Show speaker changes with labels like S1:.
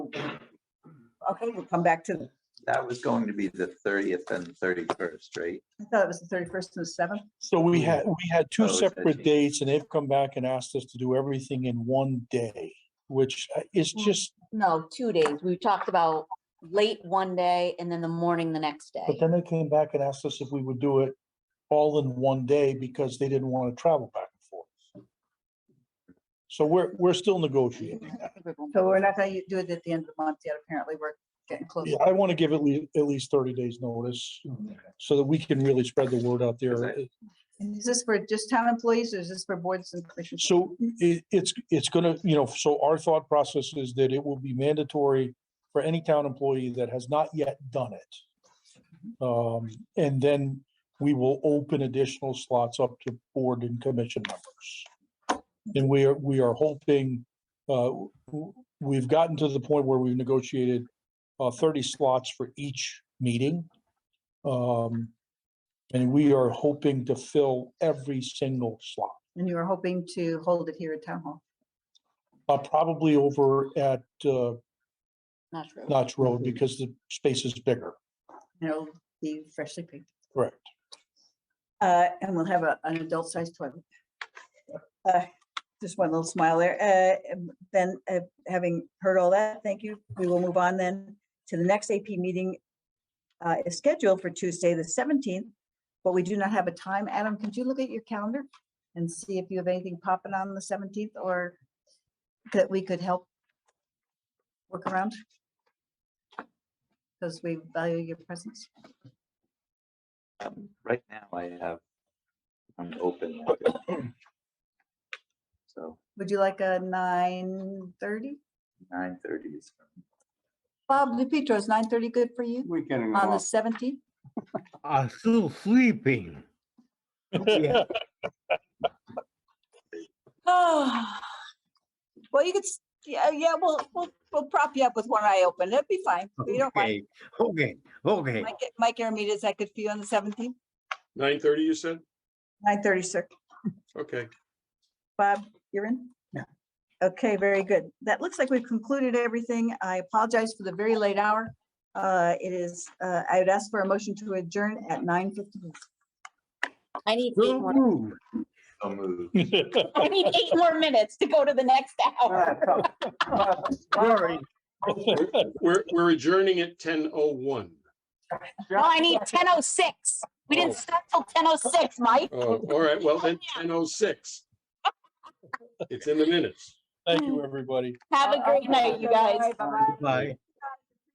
S1: Okay, we'll come back to,
S2: That was going to be the 30th and 31st, right?
S1: I thought it was the thirty-first and the seventh.
S3: So we had, we had two
S2: Oh, is that
S3: separate
S2: cheap?
S3: dates and they've come back and asked us to do everything in one day, which uh, is
S4: Mm.
S3: just,
S4: No, two days. We talked about late one day and then the morning the next
S3: but
S4: day.
S3: then they came back and asked us if we would do it all in one day because they didn't want to travel back and forth. So we're, we're still negotiating.
S1: So we're not gonna do it at the end of the month yet. Apparently, we're getting close.
S3: Yeah, I want to give at least, at least thirty days notice so that we can really spread the word out there.
S2: Okay.
S1: And is this for just town employees or is this for boards and commissions?
S3: So it, it's, it's gonna, you know, so our thought process is that it will be mandatory for any town employee that has not yet done it. Um, and then we will open additional slots up to board and commission members. And we are, we are hoping, uh, w- w- we've gotten to the point where we've negotiated, uh, thirty slots for each meeting. Um, and we are hoping to fill every single slot.
S1: And you were hoping to hold it here at town hall?
S3: Uh, probably over at, uh,
S4: Not true.
S3: Notch Road because the space is bigger.
S1: And it'll be freshly painted.
S3: Correct.
S1: Uh, and we'll have a, an adult-sized toilet. Uh, Just one little smile there. Uh, um, then, uh, having heard all that, thank you. We will move on then to the next AP meeting. Uh, is scheduled for Tuesday, the seventeenth, but we do not have a time. Adam, could you look at your calendar? And see if you have anything popping on the seventeenth or that we could help work around? Because we value your presence.
S2: Um, Right now, I have, I'm open. So
S1: Would you like a nine thirty?
S2: 9:30 is,
S1: Bob DePietro, is nine thirty good for you
S5: We're getting
S1: on the
S5: off.
S1: seventeenth?
S6: are still sleeping. Yeah.
S1: Oh, well, you could, s- yeah, yeah, we'll, we'll, we'll prop you up with one eye open. It'll be fine. We don't mind.
S6: Okay, okay, okay.
S1: Mike, Mike Aramita, is that good for you on the seventeenth?
S7: Nine thirty, you said?
S1: Nine thirty, sir.
S7: Okay.
S1: Bob, you're in?
S5: No.
S1: Okay, very good. That looks like we've concluded everything. I apologize for the very late hour. Uh, it is, uh, I would ask for a motion to adjourn at nine fifteen.
S4: I need eight
S6: Don't
S4: more,
S6: move.
S2: so moved.
S4: I need eight more minutes to go to the next hour.
S6: Sorry,
S7: We're, we're adjourning at ten oh one.
S4: No, I need ten oh six. We didn't start till ten oh six, Mike.
S7: Oh, all right, well, then ten oh six. It's in the minutes.
S3: Thank you, everybody.
S1: Uh,
S4: Have a great night, you guys.
S6: bye.